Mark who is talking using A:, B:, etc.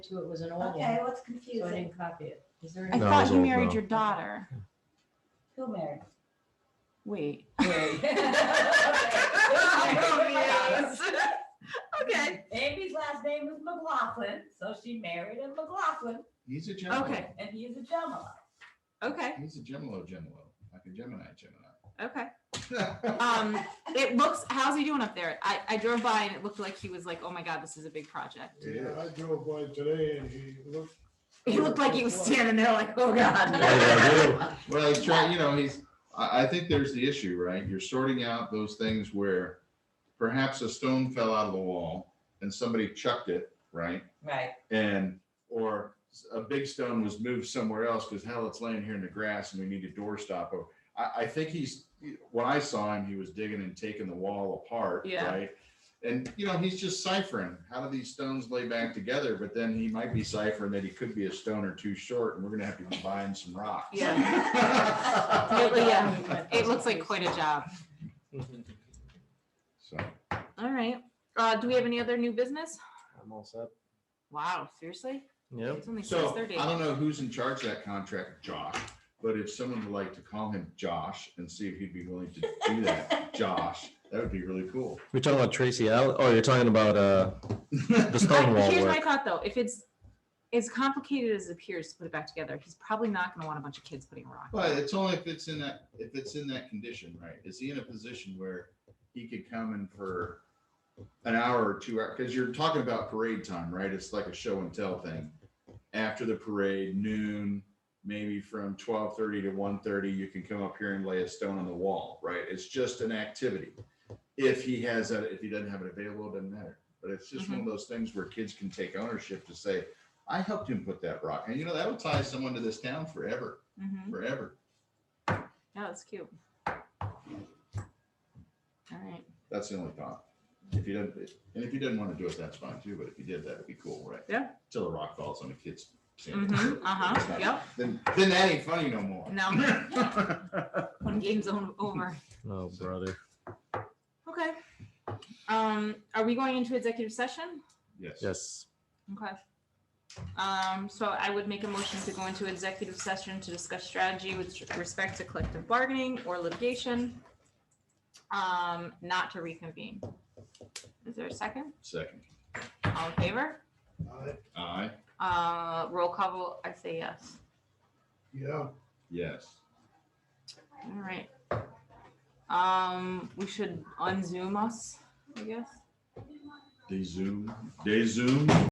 A: to it was an old
B: Okay,
A: one,
B: what's
A: so I
B: confusing?
A: didn't copy it. Is there
C: I
A: any?
D: No,
C: thought
D: it's
C: you
D: old
C: married
D: now.
C: your daughter.
B: Who married?
C: Wait. Okay.
B: Amy's last name was McLaughlin, so she married a McLaughlin,
E: He's a Gemini.
C: Okay.
B: and he's a Gemini.
C: Okay.
E: He's a Gemini, Gemini, like a Gemini, Gemini.
C: Okay. Um, it looks. How's he doing up there? I, I drove by and it looked like he was like, oh my god, this is a big project.
E: It
F: Yeah,
E: is.
F: I drove by today and he looked.
C: He looked like he was standing there like, oh
D: Yeah,
C: god.
D: yeah, yeah.
E: Well, he's trying, you know, he's, I, I think there's the issue, right? You're sorting out those things where perhaps a stone fell out of the wall and somebody chucked it, right?
B: Right.
E: And, or a big stone was moved somewhere else because hell, it's laying here in the grass and we need a doorstop. Or I, I think he's, when I saw him, he was digging and taking the wall apart,
C: Yeah.
E: right? And, you know, he's just ciphering, how do these stones lay back together? But then he might be ciphering that he could be a stone or two short and we're gonna have to combine some rocks.
C: Yeah. It- yeah. It looks like quite a job.
E: So,
C: All right. Uh, do we have any other new business?
D: I'm all set.
C: Wow. Seriously?
D: Yep.
C: It's only six
E: so
C: thirty.
E: I don't know who's in charge of that contract, Josh, but if someone would like to call him Josh and see if he'd be willing to do that, Josh, that would be really cool.
D: We're talking about Tracy Allen. Oh, you're talking about uh the
C: I-
D: Stonewall
C: Here's my
D: work.
C: thought though, if it's as complicated as it appears to put it back together, he's probably not gonna want a bunch of kids putting a rock.
E: But it's only if it's in that, if it's in that condition, right? Is he in a position where he could come in for an hour or two hours? Because you're talking about parade time, right? It's like a show and tell thing. After the parade, noon, maybe from twelve thirty to one thirty, you can come up here and lay a stone on the wall, right? It's just an activity. If he has that, if he doesn't have it available, it doesn't matter. But it's just one of those things where kids can take ownership to say, I helped him put that rock. And you know, that'll tie someone to this town forever,
C: Mhm.
E: forever.
C: Yeah, that's cute. All right.
E: That's the only thought. If you didn't, and if you didn't want to do it, that's fine too, but if you did, that'd be cool, right?
C: Yeah.
E: Till the rock falls on the kid's. sand.
C: Mhm.
E: It's
C: Uh-huh,
E: not-
C: yep.
E: Then, then that ain't funny no more.
C: No. When game's on- over.
D: Oh, brother.
C: Okay. Um, are we going into executive session?
E: Yes.
D: Yes.
C: Okay. Um, so I would make a motion to go into executive session to discuss strategy with respect to collective bargaining or litigation. Um, not to reconvene. Is there a second?
E: Second.
C: All in favor?
F: I-
E: Aye.
C: Uh, roll call, vote, I say yes.
F: Yeah,
E: Yes.
C: All right. Um, we should unzoom us, I guess.
E: They zoom, they zoom.